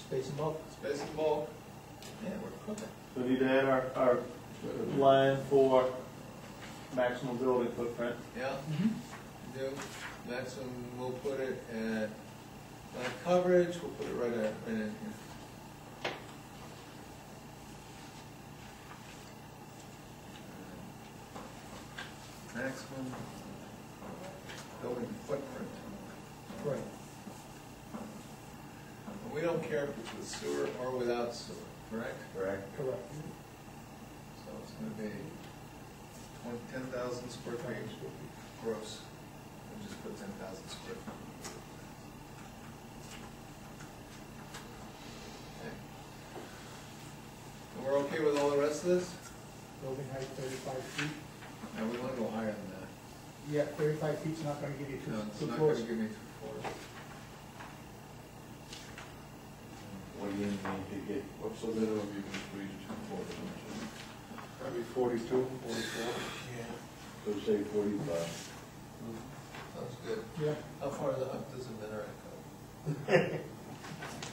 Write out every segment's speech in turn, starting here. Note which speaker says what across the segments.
Speaker 1: space and bulk.
Speaker 2: Space and bulk.
Speaker 1: Yeah, we're cooking.
Speaker 3: So we need to add our, our line for maximum building footprint.
Speaker 2: Yeah, do, maximum, we'll put it at, like, coverage, we'll put it right at, right in here. Maximum building footprint.
Speaker 1: Right.
Speaker 2: And We don't care if it's with sewer or without sewer, correct?
Speaker 4: correct?
Speaker 1: Correct.
Speaker 2: So it's gonna be twenty, ten thousand square feet gross, and just put ten thousand square feet. Okay. And we're okay with all the rest of this?
Speaker 1: Building height thirty-five feet.
Speaker 2: No, we wanna go higher than that.
Speaker 1: Yeah, thirty-five feet's not gonna give you
Speaker 2: No,
Speaker 1: two,
Speaker 2: it's
Speaker 1: two
Speaker 2: not gonna
Speaker 1: floors.
Speaker 2: give me three floors.
Speaker 4: What do you mean you get? What's the minimum you can squeeze two four?
Speaker 5: Probably forty-two, forty-four.
Speaker 4: So say forty-five.
Speaker 2: Sounds good.
Speaker 1: Yeah,
Speaker 2: How far the- up does the minaret go?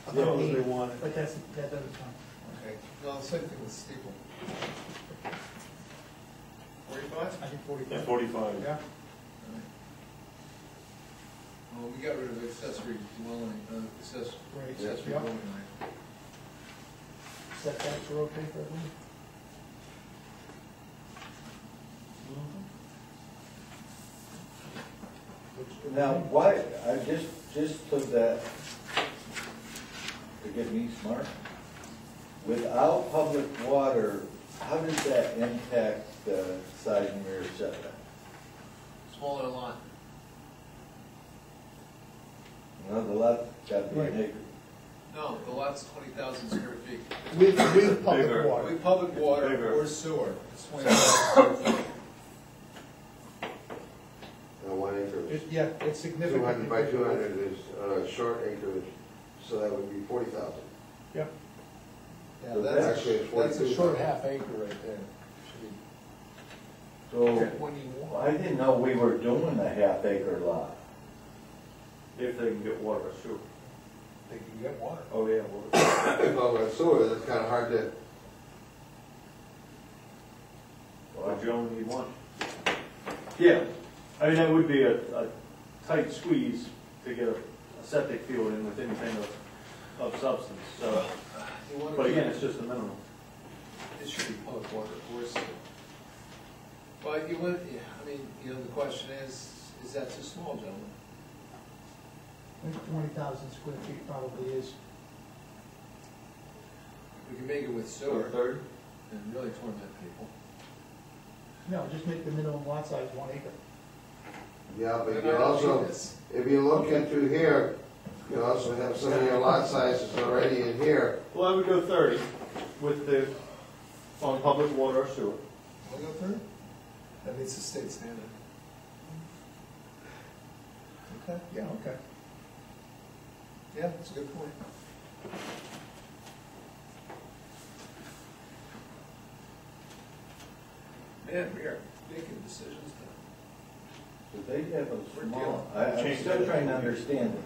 Speaker 3: As long as they want it.
Speaker 1: but that's, that doesn't count.
Speaker 2: Okay, no, same thing with steeple. Forty-five?
Speaker 1: I think
Speaker 3: Yeah,
Speaker 1: forty-five.
Speaker 3: forty-five.
Speaker 1: Yeah,
Speaker 2: Well, we got rid of accessory dwelling, uh, access-
Speaker 1: Right.
Speaker 2: accessory
Speaker 1: Yeah.
Speaker 2: dwelling. right?
Speaker 1: setbacks are okay for everyone? Which-
Speaker 4: Now, why, I just, just to that, to get me smart, without public water, how does that impact the side and rear setback?
Speaker 2: Smaller lot.
Speaker 4: You know, the lot got to be
Speaker 1: Right.
Speaker 4: an acre.
Speaker 2: No, the lot's twenty thousand square feet.
Speaker 1: With, with public
Speaker 3: Bigger.
Speaker 1: water.
Speaker 2: We public
Speaker 3: It's
Speaker 2: water
Speaker 3: bigger.
Speaker 2: or sewer, it's twenty thousand square feet.
Speaker 5: Uh, one acre,
Speaker 1: It- Yeah, it's
Speaker 5: two
Speaker 1: significant.
Speaker 5: hundred by two hundred is, uh, short acreage, so that would be forty thousand.
Speaker 1: Yeah,
Speaker 2: Yeah,
Speaker 4: So
Speaker 2: that's,
Speaker 5: actually it's
Speaker 2: that's a
Speaker 5: 42.
Speaker 2: short half acre right there.
Speaker 4: So,
Speaker 2: Twenty-one.
Speaker 4: I didn't know we were doing a half acre lot.
Speaker 3: If they can get water, sure.
Speaker 2: They can get water.
Speaker 3: Oh, yeah, well,
Speaker 5: Well, with sewer, that's kinda hard to,
Speaker 3: but you only need one. Yeah, I mean, that would be a, a tight squeeze to get a a septic field in with anything of, of substance, so.
Speaker 2: You wanna
Speaker 3: But
Speaker 2: keep-
Speaker 3: again, it's just a minimum.
Speaker 2: It should be public water or sewer. But you would, yeah, I mean, you know, the question is, is that too small, gentlemen?
Speaker 1: I think twenty thousand square feet probably is.
Speaker 2: We can make it with sewer
Speaker 4: third?
Speaker 2: and really torment people.
Speaker 1: No, just make the minimum lot size one acre.
Speaker 5: yeah, but
Speaker 2: Then
Speaker 5: you
Speaker 2: I don't do
Speaker 5: also,
Speaker 2: this.
Speaker 5: if you look into here, you also have some of your lot sizes already in here.
Speaker 3: Well, I would go thirty with the, on public water or sewer.
Speaker 2: Wanna go through? That meets the state standard. Okay,
Speaker 1: Yeah, okay.
Speaker 2: yeah, that's a good point. Man, we are making decisions now.
Speaker 4: So they have a
Speaker 2: We're
Speaker 4: small,
Speaker 2: dealing-
Speaker 4: I- I'm
Speaker 3: Change
Speaker 4: still
Speaker 3: that.
Speaker 4: trying to understand it.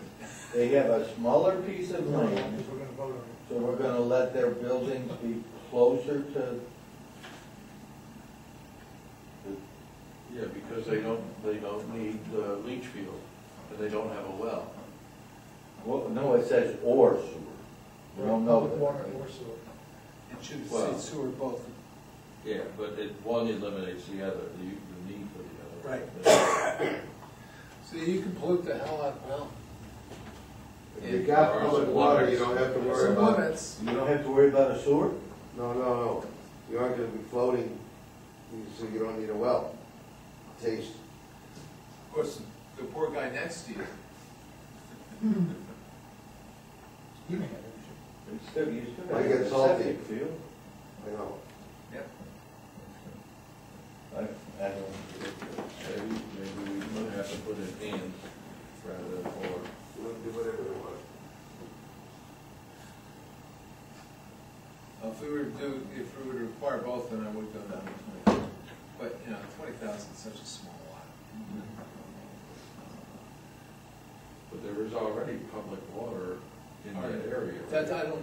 Speaker 4: They have a smaller piece of
Speaker 1: No,
Speaker 4: land.
Speaker 1: because we're gonna vote on it.
Speaker 4: So we're gonna let their buildings be closer to?
Speaker 6: Yeah, because they don't, they don't need the leach field, and they don't have a well.
Speaker 4: Well, no, it says or sewer. We don't know
Speaker 1: Public water
Speaker 4: that.
Speaker 1: or sewer.
Speaker 2: It should
Speaker 6: Well-
Speaker 2: say sewer both.
Speaker 6: Yeah, but it, one eliminates the other, the, the need for the other.
Speaker 2: So you can pollute the hell out of well.
Speaker 5: If you got
Speaker 6: Yeah.
Speaker 5: public water, you don't have to worry
Speaker 2: Some
Speaker 5: about it.
Speaker 2: limits.
Speaker 4: You don't have to worry about a sewer?
Speaker 5: No, no, no, you aren't gonna be floating, you- so you don't need a well. Taste,
Speaker 2: Of course, the poor guy next to you.
Speaker 1: You may have it.
Speaker 4: It's still, you still
Speaker 5: Might
Speaker 4: have a
Speaker 5: get salty.
Speaker 4: septic field.
Speaker 5: you know.
Speaker 2: Yep.
Speaker 4: I, I don't.
Speaker 6: Maybe, maybe we would have to put it in rather than or.
Speaker 5: You can do whatever you want.
Speaker 2: If we were to do, if we were to require both, then I would go down to twenty. But, you know, twenty thousand is such a small lot.
Speaker 5: Mm-hmm.
Speaker 6: But there is already public water in that area.
Speaker 2: That, I don't